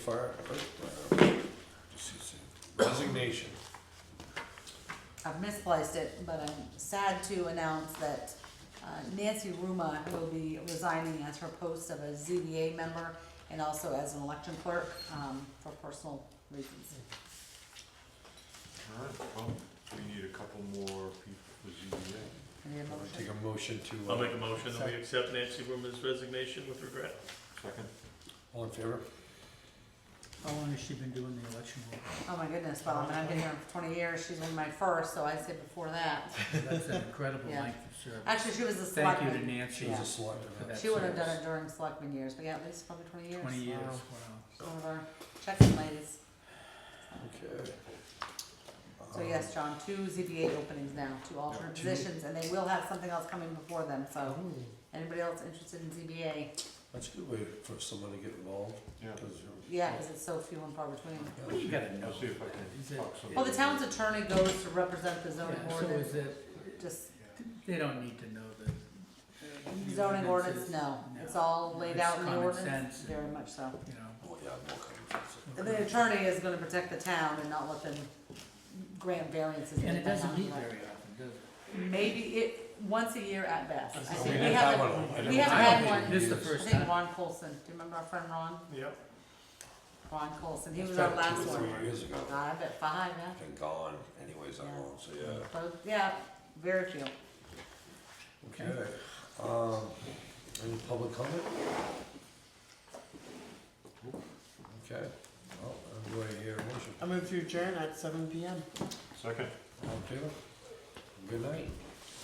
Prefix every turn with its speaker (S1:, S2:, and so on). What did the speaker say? S1: Fire, uh, resignation.
S2: I've misplaced it, but I'm sad to announce that uh, Nancy Ruma will be resigning as her post of a ZBA member and also as an election clerk um, for personal reasons.
S3: Alright, well, we need a couple more people for ZBA.
S2: Any
S1: I'll
S2: motion?
S1: Take a motion to,
S4: I'll
S1: uh,
S4: make a motion that we accept Nancy Ruma's resignation with regret.
S3: Second?
S1: uh, all in favor?
S5: How long has she been doing the election work?
S2: Oh my goodness, well, I mean, I've been here for twenty years, she's one of my first, so I'd say before that.
S5: That's an incredible
S2: Yeah.
S5: length of service.
S2: Actually, she was a
S5: Thank you to
S2: selectman.
S5: Nancy
S1: She was a
S2: Yeah.
S5: for
S1: selectman.
S5: that
S2: She would have done it
S5: service.
S2: during selectman years, but yeah, at least probably twenty years.
S5: Twenty years,
S2: Wow.
S5: wow.
S2: She's One of our checking ladies.
S1: Okay. Um,
S2: So yes, John, two ZBA openings now, two alternate
S3: two.
S2: positions, and they will have something else coming before them, so
S5: Oh.
S2: anybody else interested in ZBA?
S1: That's a good way for someone to get involved,
S3: Yeah.
S1: 'cause you're-
S2: Yeah, because it's so few and far between.
S5: What do you gotta know?
S3: I'll see if I
S5: Is
S3: can
S5: it-
S3: talk some.
S2: Well, the town's attorney goes to represent the zoning
S5: Yeah, so is
S2: ordinance,
S5: it,
S2: just
S5: they don't need to know the, The
S2: zoning ordinance,
S5: ordinances,
S2: no,
S5: no.
S2: it's all laid
S5: It's
S2: out in the
S5: common
S2: ordinance,
S5: sense.
S2: very much so.
S5: you know.
S1: Oh, yeah, more coming.
S2: And the attorney is gonna protect the town and not let them grant variances.
S5: And
S2: that
S5: it
S2: they're
S5: doesn't
S2: not
S5: meet
S2: allowed.
S5: very often, does it?
S2: Maybe it, once a year at best. I
S1: We
S2: think we
S1: didn't have
S2: haven't,
S1: one. I didn't
S2: we haven't
S1: think
S2: had
S1: we
S2: one.
S5: This is the
S1: did.
S2: I
S5: first
S2: think
S5: time.
S2: Ron Colson, do you remember our friend Ron?
S4: Yep.
S2: Ron Colson, he
S1: It's
S2: was our
S1: probably
S2: last
S1: Two or
S2: one. Uh,
S1: three years ago,
S2: I bet five, yeah.
S1: been gone anyways, I won't, so yeah.
S2: So, yeah, very few.
S1: Okay, um, any public comment? Okay, well, I'm going to hear a motion.
S6: I move to adjourn at seven PM.
S3: Second?
S1: All in favor? Good night.